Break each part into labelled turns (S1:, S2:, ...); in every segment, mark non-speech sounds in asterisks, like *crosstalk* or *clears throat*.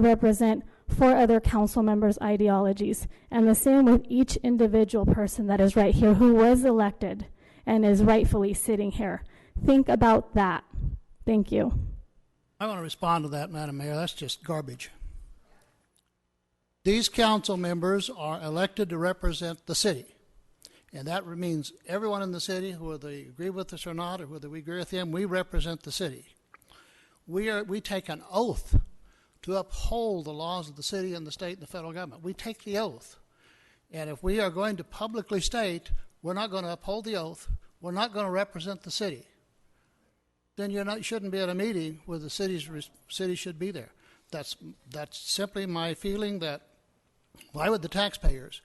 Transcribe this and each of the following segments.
S1: they represent four other council members' ideologies. And the same with each individual person that is right here who was elected and is rightfully sitting here. Think about that. Thank you.
S2: I want to respond to that, Madam Mayor. That's just garbage. These council members are elected to represent the city. And that means everyone in the city, whether they agree with us or not, or whether we agree with them, we represent the city. We, are, we take an oath to uphold the laws of the city and the state and the federal government. We take the oath. And if we are going to publicly state we're not going to uphold the oath, we're not going to represent the city, then you're not, you shouldn't be at a meeting where the city's res- city should be there. That's that's simply my feeling. That why would the taxpayers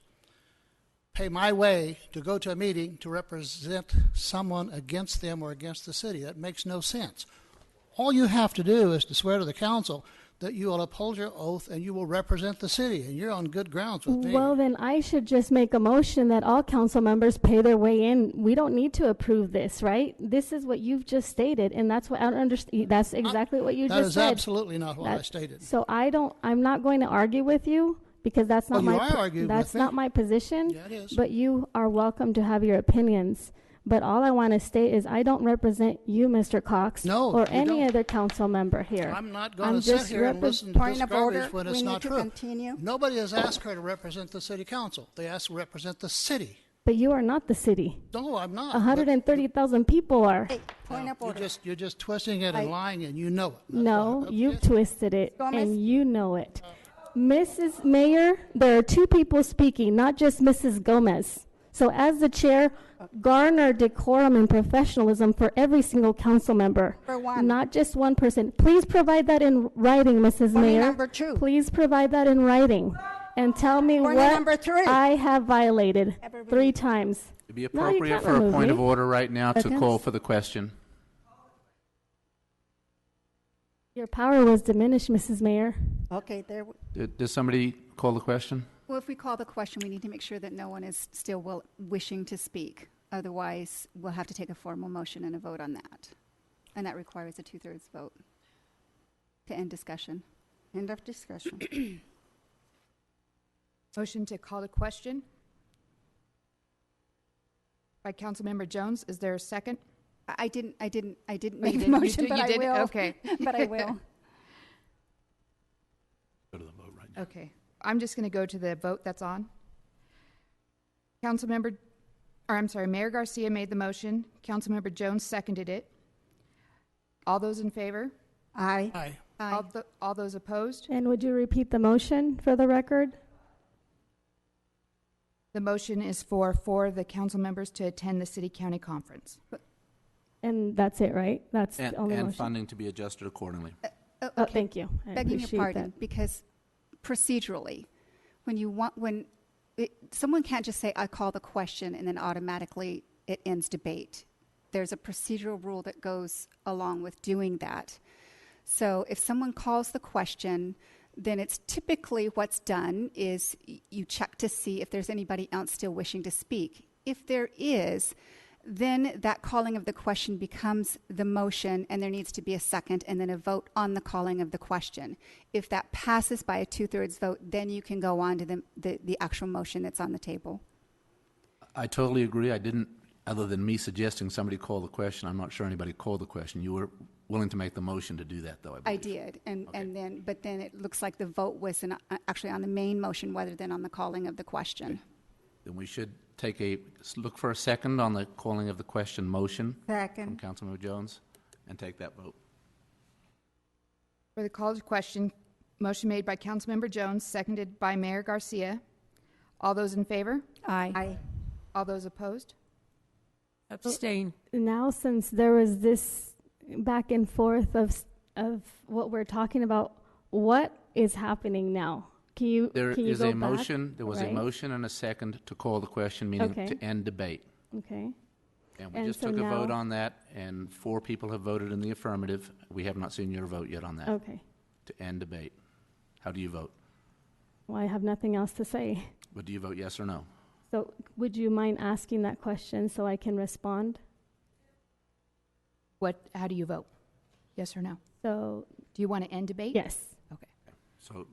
S2: pay my way to go to a meeting to represent someone against them or against the city? That makes no sense. All you have to do is to swear to the council that you will uphold your oath and you will represent the city, and you're on good grounds with me.
S1: Well, then I should just make a motion that all council members pay their way in. We don't need to approve this, right? This is what you've just stated, and that's what I don't understand. That's exactly what you
S2: that
S1: just
S2: is
S1: said.
S2: absolutely not what I
S1: That-
S2: stated.
S1: So I don't, I'm not going to argue with you because that's not my.
S2: Well, Oh, you are
S1: po-
S2: arguing with
S1: That's
S2: me.
S1: not my position.
S2: Yeah, it is.
S1: But you are welcome to have your opinions. But all I want to state is I don't represent you, Mr. Cox.
S2: No,
S1: Or
S2: you
S1: any
S2: don't.
S1: other council member here.
S2: I'm not going
S1: I'm
S2: to sit
S1: just
S2: here and
S1: repre-
S2: listen to
S3: Point
S2: this
S3: of
S2: garbage
S3: order.
S2: when it's
S3: We
S2: not
S3: need to
S2: true.
S3: continue.
S2: Nobody has asked her to represent the city council. They asked to represent the city.
S1: But you are not the city.
S2: No, I'm not. but
S1: hundred and thirty thousand people are.
S3: Hey, point of
S2: You're
S3: order.
S2: just, you're just twisting it and
S3: I-
S2: lying, and you know it. That's
S1: No,
S2: why-
S1: you've twisted it,
S3: Gomez?
S1: and you know it. Mrs. Mayor, there are two people speaking, not just Mrs. Gomez. So as the chair, garner decorum and professionalism for every single council member.
S3: Number one.
S1: Not just one person. Please provide that in writing, Mrs.
S3: Point
S1: Mayor.
S3: number two.
S1: Please provide that in writing, and tell me
S3: Point
S1: what
S3: number three.
S1: I have violated three
S3: Everybody-
S1: times.
S4: It'd be
S1: No, you
S4: appropriate
S1: can't
S4: for a
S1: remove
S4: point
S1: me.
S4: of order right now to
S1: Seconds.
S4: call for the question.
S1: Your power was diminished, Mrs. Mayor.
S3: Okay, there, w-
S4: D- Does somebody call the question?
S5: Well, if we call the question, we need to make sure that no one is still will, wishing to speak. Otherwise, we'll have to take a formal motion and a vote on that. And that requires a two thirds vote to end discussion.
S3: end of discussion.
S6: Motion to call the question by Councilmember Jones. Is there a second?
S5: *clears throat* I, I didn't, I didn't, I didn't
S6: Oh,
S5: make
S6: you
S5: the
S6: didn't- you
S5: motion,
S6: did-
S5: but
S6: you
S5: I
S6: didn't?
S5: will.
S6: Okay.
S5: *laughs* but I will.
S6: Okay. I'm just going to go to the vote that's on. Councilmember, or I'm sorry, Mayor Garcia made the motion. Councilmember Jones seconded it. All those in favor?
S3: Aye.
S2: Aye.
S6: All, tho- all those opposed?
S1: And would you repeat the motion for the record?
S6: The motion is for four of the council members to attend the city county conference.
S1: And that's it, right? That's the
S4: And,
S1: only
S4: and
S1: motion?
S4: funding to be adjusted accordingly.
S3: uh,
S5: Oh,
S1: Oh,
S5: okay.
S1: thank you. I
S5: begging your
S1: appreciate
S5: pardon,
S1: that.
S5: because procedurally, when you want, when it, someone can't just say, I call the question, and then automatically it ends debate. There's a procedural rule that goes along with doing that. So if someone calls the question, then it's typically what's done is y- you check to see if there's anybody else still wishing to speak. If there is, then that calling of the question becomes the motion, and there needs to be a second and then a vote on the calling of the question. If that passes by a two thirds vote, then you can go on to the, the, the actual motion that's on the table.
S4: I totally agree. I didn't, other than me suggesting somebody call the question, I'm not sure anybody called the question. You were willing to make the motion to do that, though, I
S5: I
S4: believe.
S5: did, and, and then, but then it looks like the vote was in, uh, actually on the main motion rather than on the calling of the question.
S4: Then we should take a, look for a second on the calling of the question motion from
S3: Second.
S4: Councilmember Jones and take that vote.
S6: For the call to question, motion made by Councilmember Jones, seconded by Mayor Garcia. All those in favor?
S3: Aye.
S6: All those opposed?
S7: Abstain.
S1: Now, since there was this back and forth of, s- of what we're talking about, what is happening now? Can you,
S4: There
S1: can you
S4: is
S1: go
S4: a
S1: back?
S4: motion, there was a
S1: Right?
S4: motion and a second to call the question, meaning
S1: Okay.
S4: to end debate.
S1: Okay.
S4: And we
S1: And
S4: just
S1: so
S4: took a vote
S1: now-
S4: on that, and four people have voted in the affirmative. We have not seen your vote yet on that,
S1: Okay.
S4: to end debate. How do you vote?
S1: Well, I have nothing else to say.
S4: Would do you vote yes or no?
S1: So would you mind asking that question so I can respond?
S6: What, how do you vote? Yes or no?
S1: So,
S6: Do you want to end debate?
S1: yes.
S6: Okay.
S4: So